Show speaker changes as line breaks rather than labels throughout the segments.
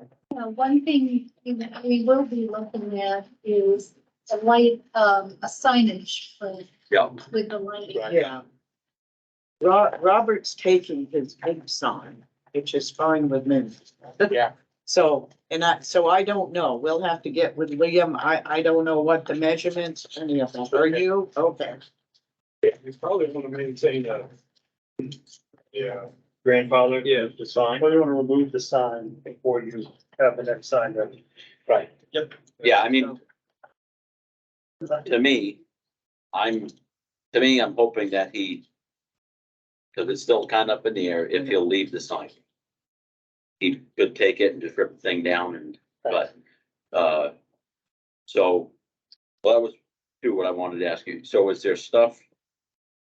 Uh, one thing we we will be looking at is a light, um, a signage for,
Yeah.
with the lighting.
Right.
Yeah. Ro- Robert's taking his big sign, which is fine with me.
Yeah.
So, and I, so I don't know. We'll have to get with Liam. I, I don't know what the measurements, any of them. Are you? Okay.
Yeah, you probably wanna maintain a. Yeah. Grandfather. Yeah, the sign.
Well, you wanna remove the sign before you have the next sign ready.
Right. Yeah, I mean, to me, I'm, to me, I'm hoping that he, because it's still kind of up in the air, if he'll leave the sign. He could take it and just rip the thing down and, but, uh, so, well, that was, do what I wanted to ask you. So is there stuff?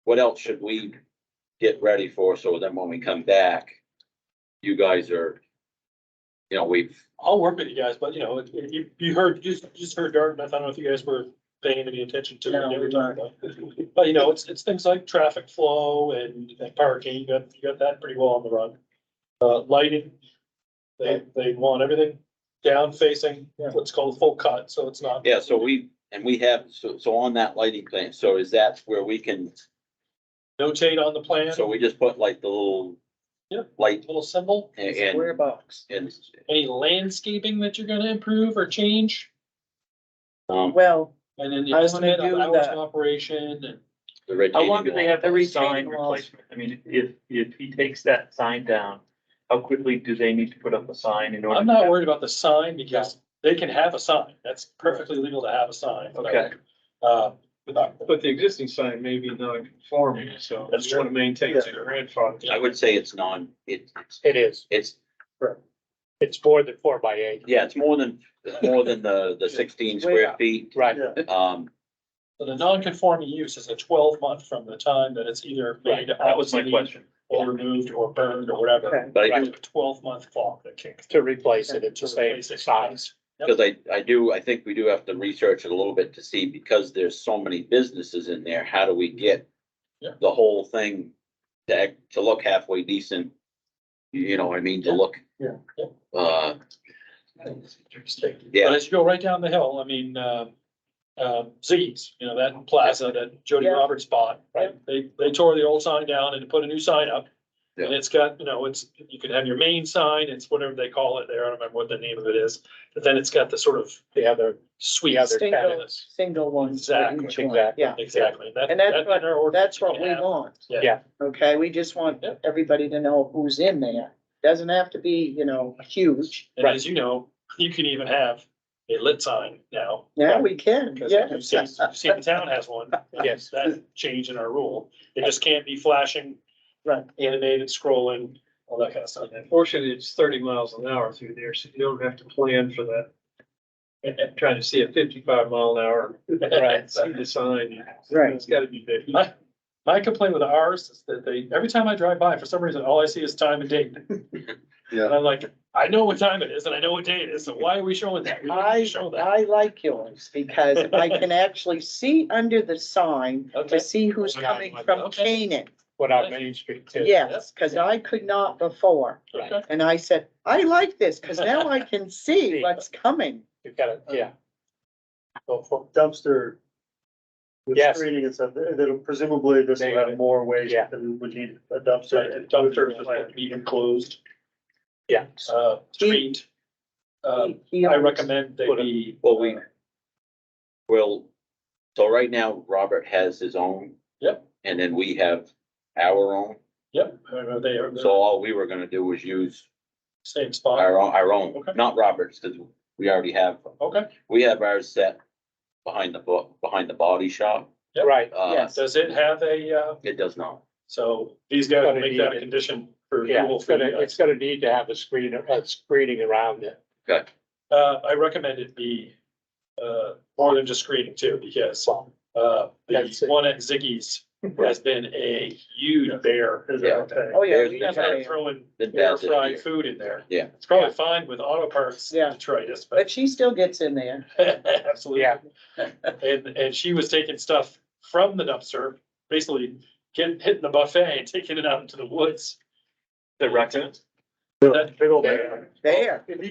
What else should we get ready for? So then when we come back, you guys are, you know, we've,
I'll work with you guys, but you know, if- if you, you heard, you just, you just heard Dartmouth, I don't know if you guys were paying any attention to
No,
it
we
every time. but- But you know, it's, it's things like traffic flow and and parking, you got, you got that pretty well on the run. Uh, lighting, they, they want everything down facing, what's called full cut, so it's not.
Yeah, so we, and we have, so, so on that lighting plan, so is that where we can,
Notate on the plan,
so we just put like the little
Yeah.
light
little symbol,
and,
Square box.
and,
any landscaping that you're gonna improve or change.
um,
Well,
And then you
I was gonna
limit on
do
hours
that.
of operation and
How
the retaining
long do they
wall.
have
The
the sign
retaining walls.
replacement? I mean, if, if he takes that sign down, how quickly do they need to put up a sign in order?
I'm
to
not
have-
worried about the sign because they can have a sign. That's perfectly legal to have a sign.
Okay.
Uh, without,
But the existing sign may be non-conforming, so
That's
you wanna maintain the grandfather.
I would say it's non, it, it's-
It is.
it's,
It's more than four by eight.
yeah, it's more than, it's more than the, the sixteen square feet.
Right.
Um,
so the non-conforming use is a twelve month from the time that it's either
Right,
made
that was my
obsolete
question.
or removed or burned or whatever.
Okay.
but I do,
Right, twelve month clock that kicks.
To replace it, it's
To
the same
replace it.
size.
because I, I do, I think we do have to research it a little bit to see, because there's so many businesses in there, how do we get
Yeah.
the whole thing to, act- to look halfway decent? You know what I mean, to
Yeah.
look.
Yeah.
Uh,
Interesting.
Yeah.
But as you go right down the hill, I mean, uh, uh, Z's, you know, that plaza that Jody
Yeah.
Roberts bought, right? They, they tore the old sign down and put a new sign up. And it's got, you know, it's, you can have your main sign, it's whatever they call it there, I don't remember what the name of it is. But then it's got the sort of,
The other,
sweet.
Yeah, they're
single, single ones. for
Exactly,
each one.
exactly.
Yeah,
Exactly. That-
And that's
that-
what-
in our ordinance,
that's what
you
we
can have-
want.
Yeah.
Yeah.
Okay, we just want
Yeah.
everybody to know who's in there. Doesn't have to be, you know, huge.
And as you know, you can even have a lit sign now.
Yeah, we can,
Because
yeah.
you've seen, you've seen the town has one.
Yes.
That change in our rule. It just can't be flashing.
Right.
Animated scrolling, all that kind of stuff.
Fortunately, it's thirty miles an hour through there, so you don't have to plan for that. And and trying to see a fifty-five mile an hour.
Right.
See the sign.
Right.
It's gotta be big.
My, my complaint with ours is that they, every time I drive by, for some reason, all I see is time and date.
Yeah.
And I'm like, I know what time it is and I know what day it is, so why are we showing that? We don't need
I,
to show that.
I like yours because I can actually see under the sign
Okay. Oh
to see who's
Okay.
coming from
Okay.
Canaan.
what on Main Street too.
Yes, because I could not before.
Okay.
And I said, I like this because now I can see what's coming.
You've got it, yeah.
dumpster. With
Yes.
screening and stuff, there- that'll presumably this will have more waste
Yeah.
than would need a
Right,
dumpster.
the Dumpster is like be enclosed.
Yeah.
Uh, screened. Uh,
He- he
I
always-
recommend they be.
Well, we will, so right now, Robert has his own.
Yep.
And then we have our own.
Yep, uh, they are,
So all we were gonna do was use
same spot.
our own, our own,
Okay.
not Robert's, because we already have,
Okay,
we have ours set behind the book, behind the body shop.
Right,
Uh,
Yes.
does it have a, uh,
it does not.
so these guys will
Gotta
make
need
that a
it.
condition for
yeah,
approval
it's
for
gonna,
you guys.
it's gonna need to have a screen, a screening around it.
Okay.
Uh, I recommend it be, uh, more than just screening too, because, uh, the
That's it.
one at Ziggy's has been a huge bear.
Is
Yeah.
that okay?
Oh, yeah.
There's
we
the
That's
got
not
it.
throwing
Been bad
air
this year.
fried food in there.
Yeah.
It's probably fine with auto parts
Yeah.
detritus, but.
But she still gets in there.
Absolutely.
Yeah.
And, and she was taking stuff from the dumpster, basically getting, hitting the buffet and taking it out into the woods.
The raccoon?
That-
Big old
bear.
There.